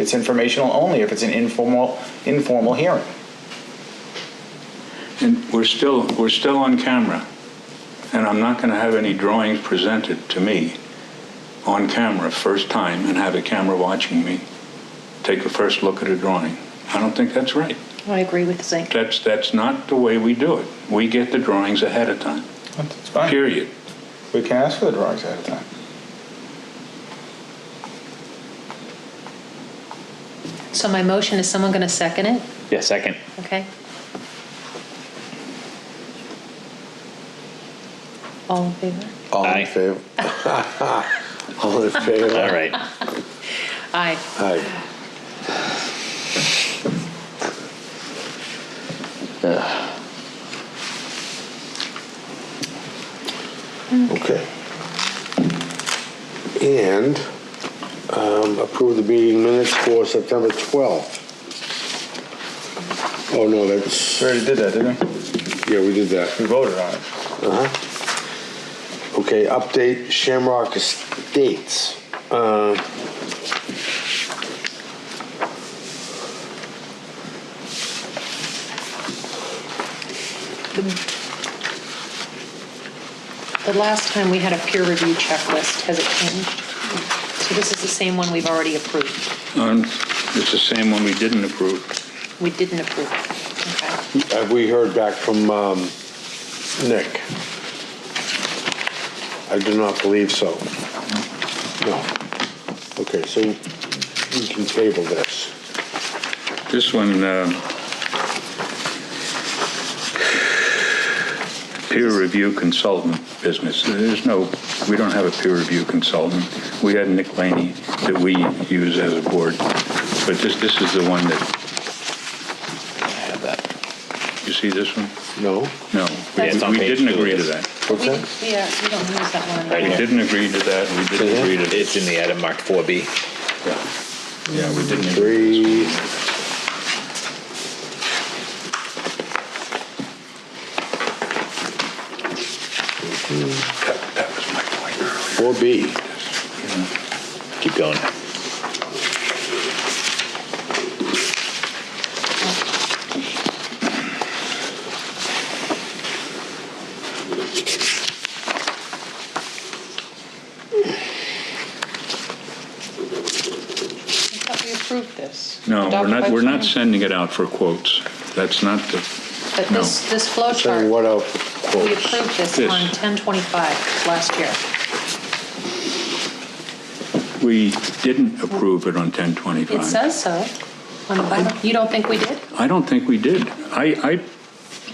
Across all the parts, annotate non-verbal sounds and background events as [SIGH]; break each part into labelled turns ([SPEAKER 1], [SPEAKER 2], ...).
[SPEAKER 1] It's informational only if it's an informal, informal hearing.
[SPEAKER 2] And we're still, we're still on camera, and I'm not going to have any drawings presented to me on camera first time and have a camera watching me take a first look at a drawing. I don't think that's right.
[SPEAKER 3] I agree with Zink.
[SPEAKER 2] That's, that's not the way we do it. We get the drawings ahead of time,
[SPEAKER 1] It's fine.
[SPEAKER 2] period.
[SPEAKER 1] We can ask for the drawings ahead of time.
[SPEAKER 3] So my motion, is someone going to second it?
[SPEAKER 4] Yeah, second.
[SPEAKER 3] Okay. All in favor?
[SPEAKER 5] All
[SPEAKER 4] Aye.
[SPEAKER 5] in [LAUGHS] favor? All in favor?
[SPEAKER 4] All right.
[SPEAKER 3] Aye.
[SPEAKER 5] Aye. Okay. And um, approve the meeting minutes for September 12th. Oh, no, that's,
[SPEAKER 1] We already did that, didn't we?
[SPEAKER 5] yeah, we did that.
[SPEAKER 1] We voted on it.
[SPEAKER 5] Okay, update Shamrock Estates. Uh,
[SPEAKER 3] The last time we had a peer review checklist, has it changed? So this is the same one we've already approved.
[SPEAKER 2] Um, It's the same one we didn't approve.
[SPEAKER 3] We didn't approve. Okay.
[SPEAKER 5] Have we heard back from um, Nick? I do not believe so. No. Okay, so we can table this.
[SPEAKER 2] This one, um, peer review consultant business, there's no, we don't have a peer review consultant. We had Nick Laney that we use as a board, but this, this is the one that,
[SPEAKER 4] I have that.
[SPEAKER 2] you see this one?
[SPEAKER 5] No?
[SPEAKER 2] No.
[SPEAKER 4] Yeah, it's on
[SPEAKER 2] We
[SPEAKER 4] page
[SPEAKER 2] didn't
[SPEAKER 4] two of
[SPEAKER 2] agree to
[SPEAKER 4] this.
[SPEAKER 2] that.
[SPEAKER 5] What's
[SPEAKER 3] We-
[SPEAKER 5] that?
[SPEAKER 3] Yeah, we don't use that one
[SPEAKER 2] We
[SPEAKER 3] anymore.
[SPEAKER 2] didn't agree to that, we didn't agree to
[SPEAKER 4] It's in the item marked 4B.
[SPEAKER 2] Yeah, we didn't agree.
[SPEAKER 5] Three.
[SPEAKER 2] That that was my point earlier.
[SPEAKER 5] 4B.
[SPEAKER 4] Keep going.
[SPEAKER 3] I thought we approved this.
[SPEAKER 2] No, we're
[SPEAKER 3] Adopted
[SPEAKER 2] not,
[SPEAKER 3] by
[SPEAKER 2] we're not
[SPEAKER 3] planning.
[SPEAKER 2] sending it out for quotes. That's not the,
[SPEAKER 3] But
[SPEAKER 2] no.
[SPEAKER 3] this, this flow chart.
[SPEAKER 5] Saying what out?
[SPEAKER 3] We approved this
[SPEAKER 2] This.
[SPEAKER 3] on 1025 last year.
[SPEAKER 2] We didn't approve it on 1025.
[SPEAKER 3] It says so on the bottom. You don't think we did?
[SPEAKER 2] I don't think we did. I, I,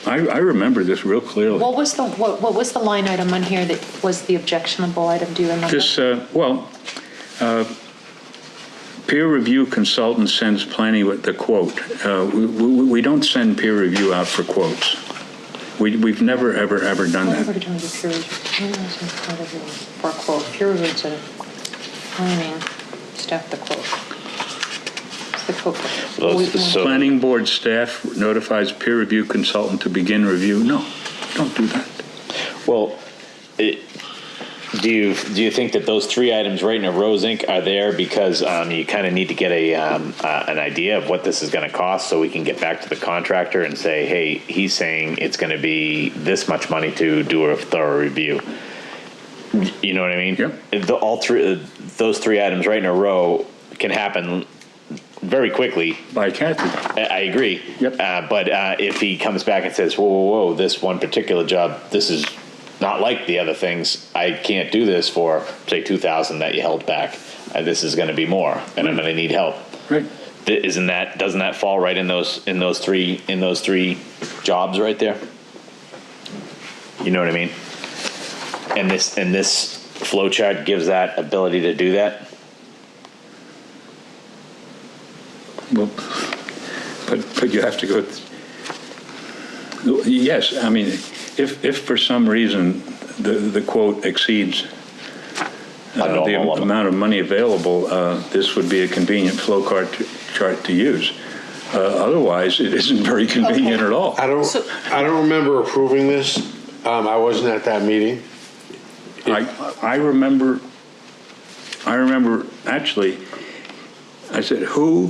[SPEAKER 2] I I remember this real clearly.
[SPEAKER 3] What was the, what what was the line item on here that was the objectionable item? Do you remember?
[SPEAKER 2] This, uh, well, uh, peer review consultant sends planning with the quote. Uh, We, we we don't send peer review out for quotes. We, we've never, ever, ever done
[SPEAKER 3] Whatever
[SPEAKER 2] that.
[SPEAKER 3] to do with peer review. For quote, peer review to uh, planning, staff the quote. It's the quote.
[SPEAKER 4] Well,
[SPEAKER 3] We-
[SPEAKER 4] so-
[SPEAKER 2] Planning board staff notifies peer review consultant to begin review. No, don't do that.
[SPEAKER 4] Well, it, do you do you think that those three items right in a row, Inc., are there because um, you kind of need to get a um, uh, an idea of what this is going to cost, so we can get back to the contractor and say, hey, he's saying it's going to be this much money to do a thorough review. You know what I mean?
[SPEAKER 2] Yep.
[SPEAKER 4] The, all three those three items right in a row can happen very quickly
[SPEAKER 2] By Kathy.
[SPEAKER 4] I- I agree.
[SPEAKER 2] Yep.
[SPEAKER 4] Uh, but uh, if he comes back and says, "Whoa, whoa, whoa! This one particular job, this is not like the other things. I can't do this for say two thousand that you held back. Uh, this is going to be more, and
[SPEAKER 2] Mm.
[SPEAKER 4] I'm going to need help."
[SPEAKER 2] Right.
[SPEAKER 4] Th- Isn't that doesn't that fall right in those in those three in those three jobs right there? You know what I mean? And this and this flow chart gives that ability to do that.
[SPEAKER 2] Well, but, but you have to go, yes, I mean, if, if for some reason the, the quote exceeds
[SPEAKER 4] A
[SPEAKER 2] uh, the
[SPEAKER 4] normal level.
[SPEAKER 2] amount of money available, uh, this would be a convenient flow chart, chart to use. Uh, Otherwise, it isn't very convenient
[SPEAKER 3] Okay.
[SPEAKER 2] at all.
[SPEAKER 5] I don't,
[SPEAKER 3] So-
[SPEAKER 5] I don't remember approving this. Um, I wasn't at that meeting.
[SPEAKER 2] I, I remember, I remember, actually, I said, who